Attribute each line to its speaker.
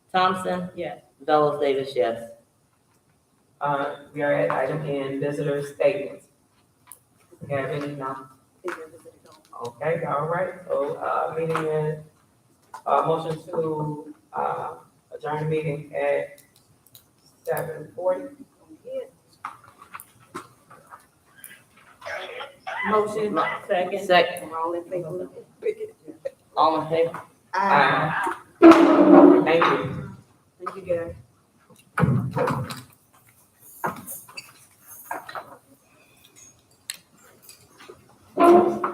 Speaker 1: Thompson?
Speaker 2: Yes.
Speaker 1: Fellows Davis, yes.
Speaker 3: Uh, we are at item N, visitor statements. We have any now? Okay, all right, so, uh, meeting is, uh, motion to, uh, adjourn the meeting at seven forty.
Speaker 2: Motion, second.
Speaker 1: Second,
Speaker 2: All in favor?
Speaker 1: all in favor?
Speaker 3: Aye. Thank you.
Speaker 2: Thank you, guys.